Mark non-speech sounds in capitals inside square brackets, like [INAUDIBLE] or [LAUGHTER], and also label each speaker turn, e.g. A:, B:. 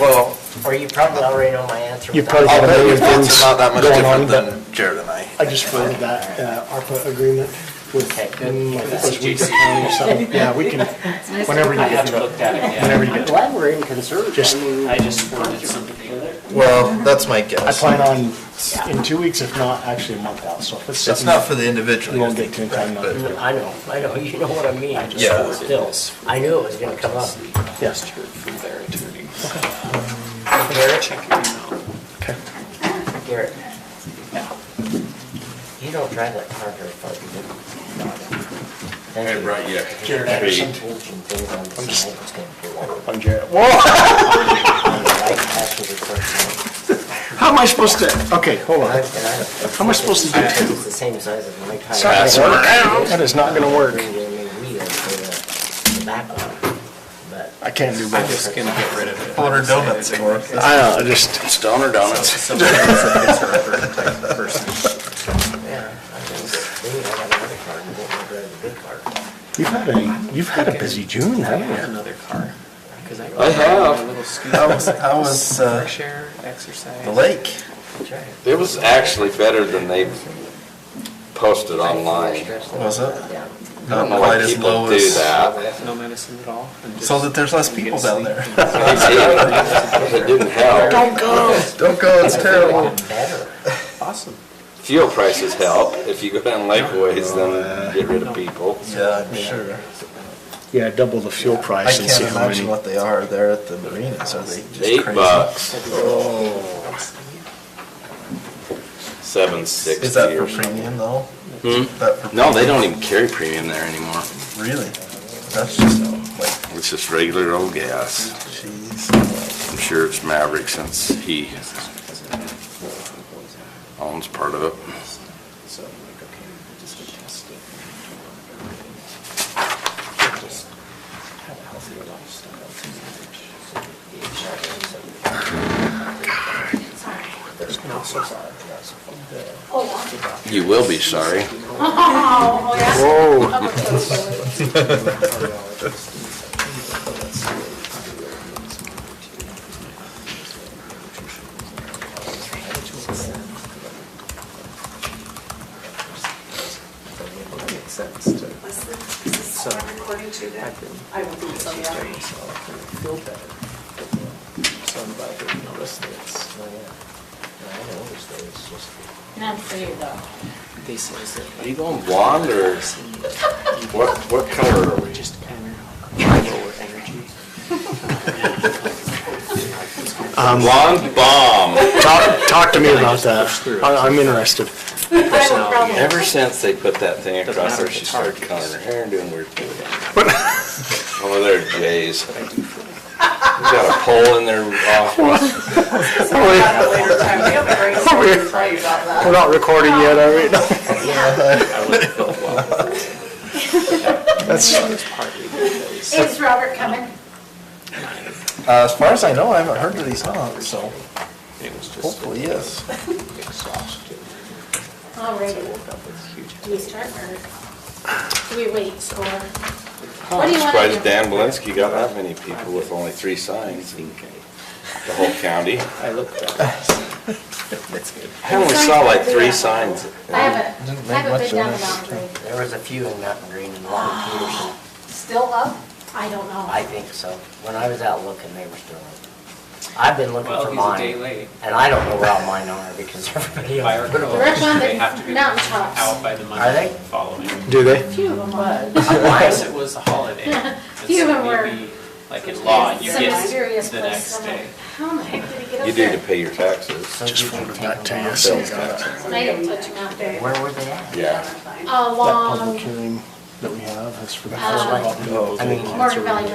A: Well,
B: Or you probably already know my answer.
C: You
B: without-
C: probably-
A: I'll bet
C: million
A: your thoughts
C: things
A: are not that much
C: going
A: different
C: on, but-
A: than Jared and I.
C: I just forwarded that uh, ARPA agreement with,
B: Okay, good.
C: mm, I think it was
D: With
C: Weaver
D: CGC.
C: County or something. Yeah, we can,
E: nice
C: whenever you
D: I
C: get
D: haven't
C: to it.
D: looked at it yet.
C: Whenever you
B: I'm
C: get to it.
B: glad we're in conserve.
C: Just-
B: I mean,
D: I just wanted something together.
A: Well, that's my guess.
C: I plan on, in two weeks, if not actually a month out, so if it's
A: It's
C: something.
A: not for the individual.
C: We won't
A: you're
C: get to in
A: thinking,
C: time,
A: right,
C: not-
A: but-
B: I know, I know, you know what I mean. I just-
A: Yeah.
B: Still, I knew it was gonna come up.
C: Yes.
D: From their attorney.
B: Garrett,
D: Check your email.
B: Garrett,
D: Yeah.
B: you don't drive that car very far, do you? Thank you.
F: Hey, right, yeah.
B: If you have
F: Hey.
B: some aging thing on the side, it's gonna be one of
C: I'm Jared. Whoa,
B: the right passenger first
C: how am I supposed to, okay, hold
B: one.
C: on.
B: And I-
C: How am I supposed to do
B: It's
C: two?
B: the same size as my tire.
C: That's not gonna work. That is not gonna work.
B: Bring in the wheels for the- the back one, but.
C: I can't do
D: I'm
C: both.
D: just gonna get rid of it.
A: Order donuts and work.
C: I know, I just,
F: Stoner Donuts.
D: Somebody who's a conservative type of person.
B: Yeah, I think that maybe I got another car, and didn't want to drive the big car.
C: you've had a, you've had a busy June,
A: [LAUGHS]
D: I
C: haven't
D: have
C: you?
D: another car. 'cause I
F: I have.
D: My little scooter.
A: How was, how was uh,
D: Fresh air, exercise.
A: the lake?
B: Try it.
F: It was actually better than they posted online.
A: Was it?
B: Yeah.
F: I don't know why people do that.
D: No medicine at all. and just-
A: So that there's less
D: you
A: people
D: get
A: down
D: sleep.
A: there.
F: It didn't help.
A: go. Oh, Don't go,
F: [LAUGHS]
A: it's terrible.
B: Better.
D: Awesome.
F: Fuel prices help. If you go down lakeways, then get rid of people.
A: Yeah, I'm sure.
C: Yeah, double the fuel
A: I
C: price and see
A: can't
C: how
A: imagine
C: many.
A: what they are there at the marinas, are they just crazy?
F: Eight bucks,
A: Oh,
F: seven sixty
A: is that
F: or
A: for
F: something.
A: premium though?
F: Hmm?
A: That for
F: No, they don't even carry premium there anymore.
A: Really? That's just like,
F: It's just regular old gas.
A: jeez.
F: I'm sure it's Maverick since he owns part of it.
D: So I'm like, okay, we'll just go test it. Just have a healthy lifestyle to manage. There's no
F: You will be sorry.
E: Oh, yeah.
C: Whoa,
D: Makes sense to.
E: [LAUGHS] Is this recording too, Deb? I will be, so yeah.
D: Feel better. So I'm glad that you noticed this.
B: Oh, yeah. No, I know, it's there, it's just-
E: Not for you, though.
D: They say is that
F: Are you going blonde or what, what color are we?
D: just kind of lower energy.
C: Um,
F: Blonde bomb.
C: talk, talk to me about
D: Push through
C: that.
D: it.
C: I, I'm interested.
E: problem.
F: Ever since they put that thing
D: Doesn't
F: across
D: matter
F: her,
D: if
F: she
D: it's
F: started
D: hard.
F: coloring her hair and doing weird things. Over there, Jays. We got a pole in their office.
E: Sorry about it later time. We have
C: [LAUGHS]
E: a great story to tell you about that.
C: We're not recording yet, are we?
D: I wouldn't feel well.
C: That's,
D: It's partly because
E: Is Robert coming?
A: Uh, As far as I know, I haven't heard that he's hung, so
D: it was just
A: hopefully, yes.
D: exhaustion.
E: All
D: I
E: right.
D: woke up with huge.
E: Do we start or do we wait or? What do you want to
F: Surprised
E: do?
F: Dan Belinsky got that many people with only three signs in the whole county.
D: I looked up. That's good.
F: I only saw like three signs.
E: I haven't,
A: Didn't
E: I
A: make
E: haven't
A: much
E: been down
A: of
E: the
A: that.
E: mountain.
B: There was a few in Mountain Green and Long Peterson,
E: Still up? I don't know.
B: I think so. When I was out looking, they were still up. I've been looking
D: Well,
B: for
D: he's a day
B: mine,
D: late.
B: and I don't know where all mine are because everybody
D: By
B: else.
D: our code,
E: We're up on the
D: they have to be
E: mountaintops.
D: out by the
B: Are they?
D: Monday
A: [LAUGHS]
D: following.
C: do they?
E: Few of them are.
D: Unless it was a holiday. and
E: [LAUGHS] Few of
D: so
E: them were-
D: maybe, Like in law, you
E: Some
D: get
E: mysterious
D: the next
E: place. I'm like,
D: day.
E: How in the heck did he get up there?
F: You need to pay your taxes.
B: So you can take
C: back to
B: them out.
C: you.
F: Sales taxes.
E: And I didn't touch Oh, him out there.
B: Where were they at?
F: Yeah.
C: That public
E: Along
C: hearing that we have is for the
E: Uh,
C: house.
B: I mean-
E: Morgan Valley